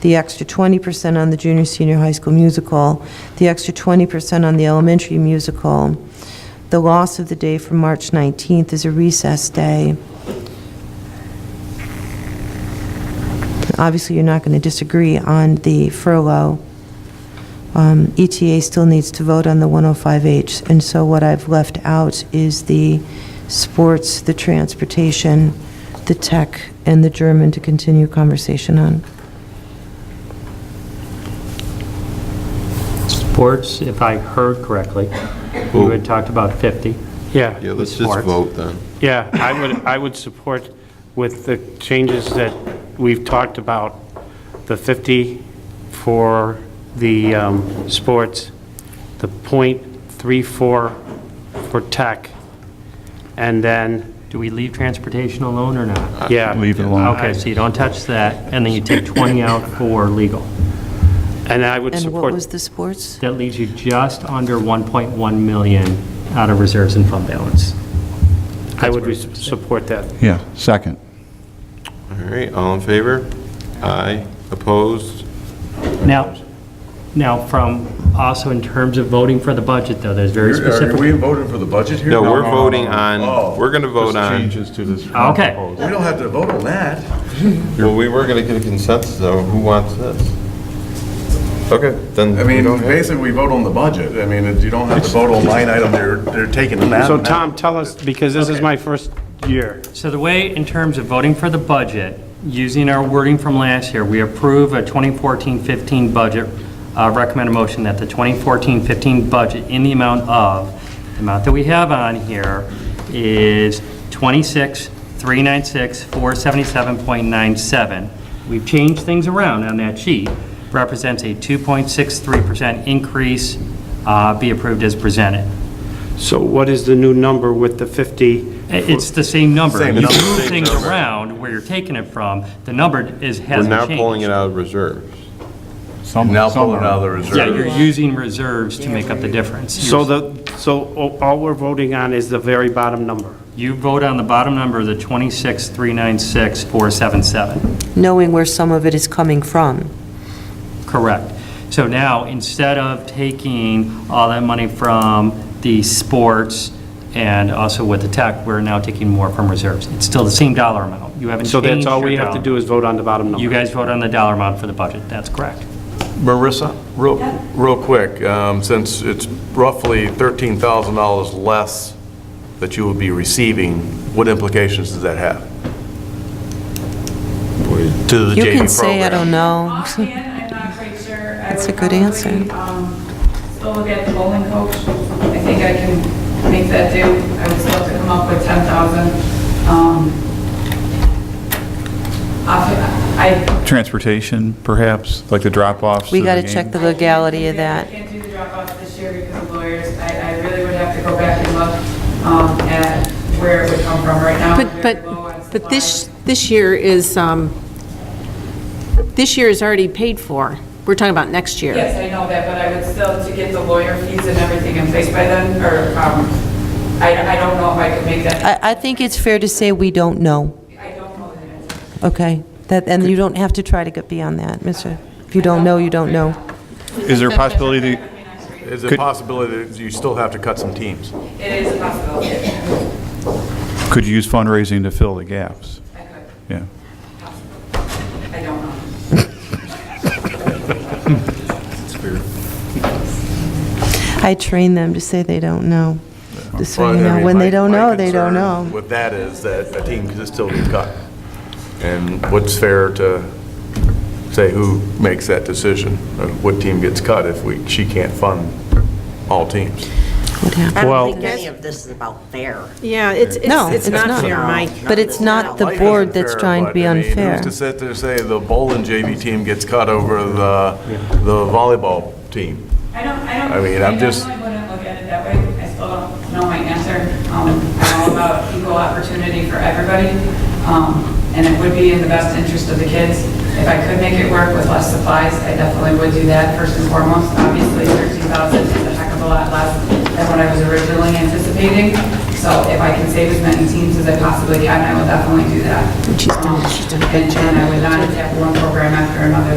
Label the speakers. Speaker 1: the extra 20% on the junior, senior high school musical, the extra 20% on the elementary musical. The loss of the day from March 19th is a recess day. Obviously, you're not going to disagree on the furlough. Um, ETA still needs to vote on the 105H, and so what I've left out is the sports, the transportation, the tech, and the German to continue conversation on.
Speaker 2: Sports, if I heard correctly, you had talked about 50.
Speaker 3: Yeah.
Speaker 4: Yeah, let's just
Speaker 2: Sports.
Speaker 4: vote then.
Speaker 3: Yeah, I would, I would support with the changes that we've talked about, the 50 for the um, sports, the .34 for tech, and then,
Speaker 2: Do we leave transportation alone or not?
Speaker 3: yeah.
Speaker 5: Leave it alone.
Speaker 2: Okay, so you don't touch that, and then you take 20 out for legal.
Speaker 3: And I would
Speaker 1: And what
Speaker 3: support,
Speaker 1: was the sports?
Speaker 2: That leaves you just under 1.1 million out of reserves and fund balance.
Speaker 3: I would re- support that.
Speaker 5: Yeah, second.
Speaker 4: All right, all in favor? Aye. Opposed?
Speaker 2: Now, now from, also in terms of voting for the budget, though, there's very
Speaker 6: Are
Speaker 2: specific.
Speaker 6: we voting for the budget here?
Speaker 4: No, we're voting
Speaker 6: Oh.
Speaker 4: on, we're going to vote on,
Speaker 5: Changes to this.
Speaker 2: Oh, Okay.
Speaker 6: We don't have to vote on that.
Speaker 4: well, we were going to get a consensus, though. Who wants this? Okay, then.
Speaker 6: I
Speaker 4: we
Speaker 6: mean,
Speaker 4: don't have-
Speaker 6: basically, we vote on the budget. I mean, you don't have to vote on line item, they're, they're taking that.
Speaker 3: So Tom, tell us, because this is my first year.
Speaker 2: So the way, in terms of voting for the budget, using our wording from last year, we approve a 2014-15 budget, uh, recommend a motion that the 2014-15 budget in the amount of, the amount that we have on here is 26,396,477.97. We've changed things around on that sheet, represents a 2.63% increase, uh, be approved as presented.
Speaker 3: So what is the new number with the 50?
Speaker 2: I- It's the same number.
Speaker 6: Same
Speaker 2: You
Speaker 6: number.
Speaker 2: move
Speaker 4: Same
Speaker 2: things
Speaker 4: number.
Speaker 2: around where you're taking it from, the number is,
Speaker 4: We're
Speaker 2: hasn't
Speaker 4: now
Speaker 2: changed.
Speaker 4: pulling it out of reserves.
Speaker 6: Now pulling out of the reserve.
Speaker 2: Yeah, you're using reserves to make up the difference.
Speaker 3: So
Speaker 2: You're-
Speaker 3: the, so a- all we're voting on is the very bottom number.
Speaker 2: You vote on the bottom number, the 26,396,477.
Speaker 1: Knowing where some of it is coming from.
Speaker 2: Correct. So now, instead of taking all that money from the sports and also with the tech, we're now taking more from reserves. It's still the same dollar amount. You haven't changed
Speaker 3: So that's all we
Speaker 2: your
Speaker 3: have to
Speaker 2: dollar.
Speaker 3: do is vote on the bottom number.
Speaker 2: You guys vote on the dollar amount for the budget. That's correct.
Speaker 6: Marissa, real, real quick, um, since it's roughly $13,000 less that you will be receiving, what implications does that have? To the JV
Speaker 1: You
Speaker 6: program?
Speaker 1: can say, I don't know.
Speaker 7: Offhand, I'm not quite sure. I
Speaker 1: That's
Speaker 7: would
Speaker 1: a good
Speaker 7: probably,
Speaker 1: answer.
Speaker 7: um, Still look at the bowling coach. I think I can make that do. I would still have to come up with 10,000. Um, off- I.
Speaker 5: Transportation, perhaps, like the drop-offs.
Speaker 1: We
Speaker 5: to
Speaker 1: got to
Speaker 5: game?
Speaker 1: check the legality of
Speaker 7: I
Speaker 1: that.
Speaker 7: can't do the drop-off this year because of lawyers. I, I really would have to go back and look um, at where it would come from right now.
Speaker 8: But,
Speaker 7: we're low on
Speaker 8: but, but this,
Speaker 7: supplies.
Speaker 8: this year is, um, this year is already paid for. We're talking about next year.
Speaker 7: Yes, I know that, but I would still, to get the lawyer fees and everything in place by then, or, um, I, I don't know if I could make that.
Speaker 1: I, I think it's fair to say we don't know,
Speaker 7: I don't know the answer.
Speaker 1: okay? That, and you don't have to try to get beyond that, Mr. If you don't know, you don't know.
Speaker 5: Is there a possibility that
Speaker 6: Is it
Speaker 5: Could-
Speaker 6: possibility that you still have to cut some teams?
Speaker 7: It is a possibility.
Speaker 5: could you use fundraising to fill the gaps? Yeah.
Speaker 7: I don't know.
Speaker 1: I train them to say they don't know. This way, you
Speaker 6: Well, I
Speaker 1: know,
Speaker 6: mean,
Speaker 1: when
Speaker 6: my-
Speaker 1: they don't
Speaker 6: my
Speaker 1: know, they don't
Speaker 6: concern
Speaker 1: know.
Speaker 6: With that is that a team could still be cut. And what's fair to say who makes that decision? uh, What team gets cut if we, she can't fund all teams?
Speaker 9: I
Speaker 3: Well-
Speaker 9: don't think any of this is about fair.
Speaker 8: Yeah, Uh, it's,
Speaker 1: No,
Speaker 8: it's, it's not fair, Mike.
Speaker 1: But it's not the
Speaker 6: Life
Speaker 1: board
Speaker 6: isn't
Speaker 1: that's
Speaker 6: fair,
Speaker 1: trying to
Speaker 6: but,
Speaker 1: be
Speaker 6: I mean,
Speaker 1: unfair.
Speaker 6: Who's to sit there and say the bowling JV team gets cut over the, the volleyball team?
Speaker 7: I don't, I don't.
Speaker 6: I mean, I'm just-
Speaker 7: I normally wouldn't look at it that way. I still don't know my answer. Um, I'm all about equal opportunity for everybody. Um, and it would be in the best interest of the kids. If I could make it work with less supplies, I definitely would do that first and foremost. Obviously, 13,000 is a heck of a lot less than what I was originally anticipating. So if I can save as many teams as I possibly can, I will definitely do that. Um, And and I would not attack one program after another